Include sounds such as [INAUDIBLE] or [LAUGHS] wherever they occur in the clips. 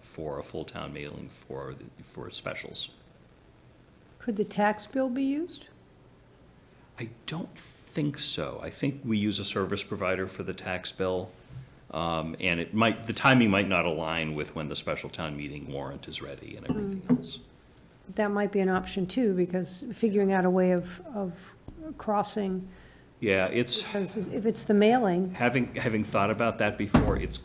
for a full town mailing for, the- for specials. Could the tax bill be used? I don't think so. I think we use a service provider for the tax bill. Um, and it might, the timing might not align with when the special town meeting warrant is ready and everything else. That might be an option too, because figuring out a way of, of crossing, Yeah, it's, because if it's the mailing, having, having thought about that before, it's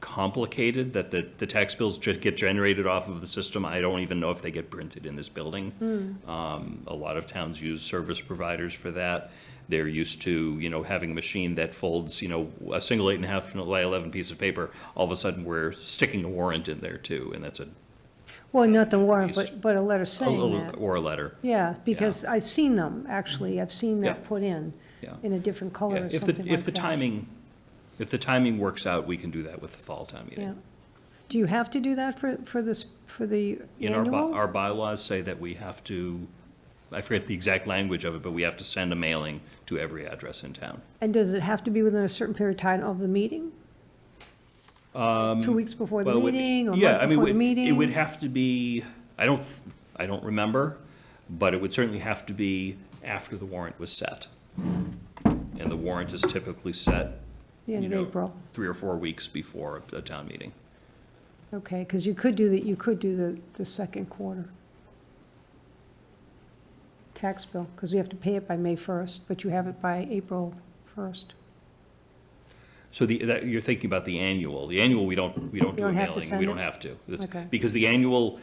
complicated that the, the tax bills ju- get generated off of the system. I don't even know if they get printed in this building. Hmm. Um, a lot of towns use service providers for that. They're used to, you know, having a machine that folds, you know, a single eight and a half by eleven piece of paper. All of a sudden, we're sticking a warrant in there too, and that's a, well, not the warrant, but, but a letter a- saying a- that. or a letter. Yeah, because I've seen them, actually, I've seen that Yeah. put in, Yeah. in a different color Yeah, or If something like the, that. if the timing, if the timing works out, we can do that with the fall town Yeah. meeting. Do you have to do that for, for this, for the In our, by- annual? our bylaws say that we have to, I forget the exact language of it, but we have to send a mailing to every address in town. And does it have to be within a certain period of time of the meeting? Two weeks before the Um, Well, it would- meeting, or a yeah, I month mean, before the would- meeting? It would have to be, I don't, th- I don't remember, but it would certainly have to be after the warrant was set. And the warrant is typically set, The you end know, of April. three or four weeks before a a town meeting. Okay, because you could do the, you could do the, the second quarter tax bill, because we have to pay it by May 1st, but you have it by April 1st. So the, that, you're thinking about the annual. The annual, we don't, we don't do You a don't have to mailing. send We it? don't have to. It's- Okay. Because the annual,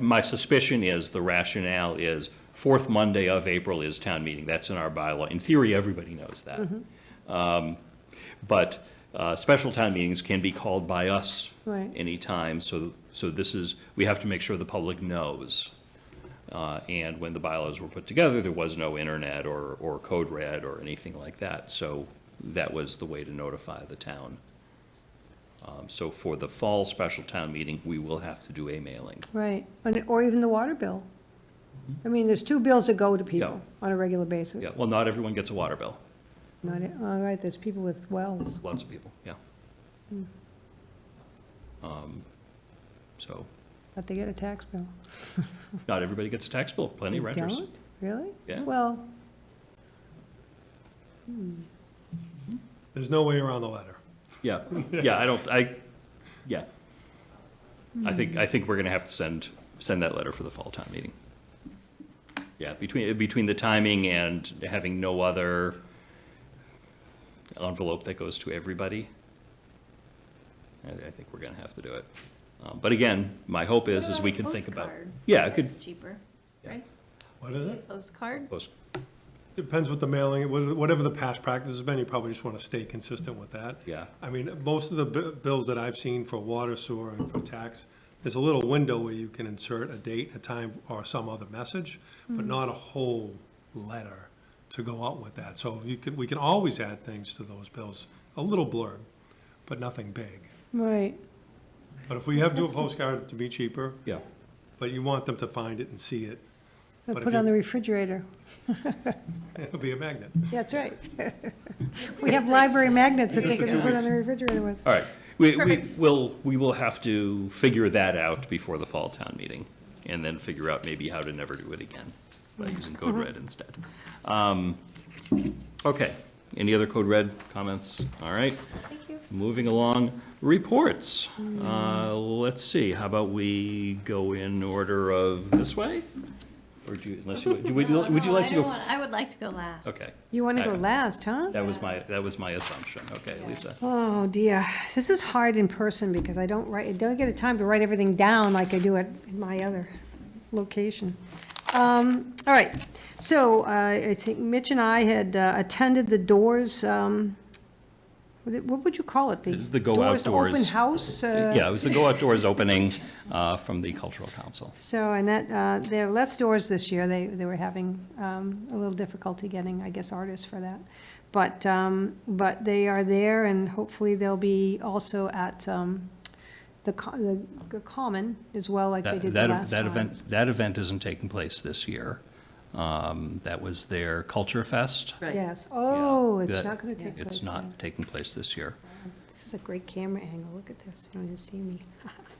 my suspicion is, the rationale is, fourth Monday of April is town meeting. That's in our bylaw. In theory, everybody knows that. Mm-hmm. Um, But uh, special town meetings can be called by us Right. anytime, so, so this is, we have to make sure the public knows. Uh, And when the bylaws were put together, there was no internet or, or code red or anything like that. So that was the way to notify the town. Um, So for the fall special town meeting, we will have to do a mailing. Right, and- or even the water bill. I mean, there's two bills that go to people on a regular basis. Mm-hmm. Yeah, well, not everyone gets a water bill, Not, it- all right, there's people with wells. lots of people, yeah. Hmm. Um, So, But they get a tax bill. not everybody gets a tax bill, plenty They of renters. Don't, really? Yeah. Well, There's no way around the letter. Yeah, yeah, I don't, I, yeah. I think, I think we're gonna have to send, send that letter for the fall town meeting. Yeah, between, between the timing and having no other envelope that goes to everybody, I, I think we're gonna have to do it. Um, But again, my hope is, is we can think about. Yeah, I could, It's cheaper, Yeah. right? What is it? Postcard? post- Depends what the mailing, what- whatever the past practice has been, you probably just want to stay consistent with that. Yeah. I mean, most of the bi- bills that I've seen for water, sewer, and for tax, there's a little window where you can insert a date, a time, or some other message, but not a whole letter to go out with that. So you could, we can always add things to those bills, a little blurb, but nothing big. right, But if we have to do a postcard to be cheaper, yeah, but you want them to find it and see it, [LAUGHS] They'll But if put it on you- the refrigerator. it'll be a magnet. That's right. [LAUGHS] We have library magnets that they can put on the refrigerator with. all right. We, we Perfect. will, we will have to figure that out before the fall town meeting, and then figure out maybe how to never do it again by Mm-hmm. using code red instead. Um, Okay, any other code red comments? All right, Thank you. moving along, reports. Uh, Let's see, how about we go in order of this way? Or do you, unless you, do we- [LAUGHS] No, would you no, like I to go? don't want- I would like to go last. Okay. You want to go I- last, huh? That was my, that was my assumption. Okay, Lisa. Oh dear, this is hard in person because I don't write, I don't get a time to write everything down like I do at my other location. Um, all right, so uh, I think Mitch and I had uh, attended the Doors, um, what it- what would you call it? It was the Go Open Outdoors. House? uh, Yeah, it was the Go Outdoors opening uh, from the Cultural Council. So, and that, uh, there are less doors this year. They, they were having um, a little difficulty getting, I guess, artists for that. But, um, but they are there and hopefully they'll be also at um, the co- the the Common as well, like they That, did the that last that time. event, that event isn't taking place this year. Um, That was their Culture Fest. Yes. Oh, it's That- not going to take place. It's there. not taking place this year. This is a great camera angle. Look at this. You don't even see me. [LAUGHS]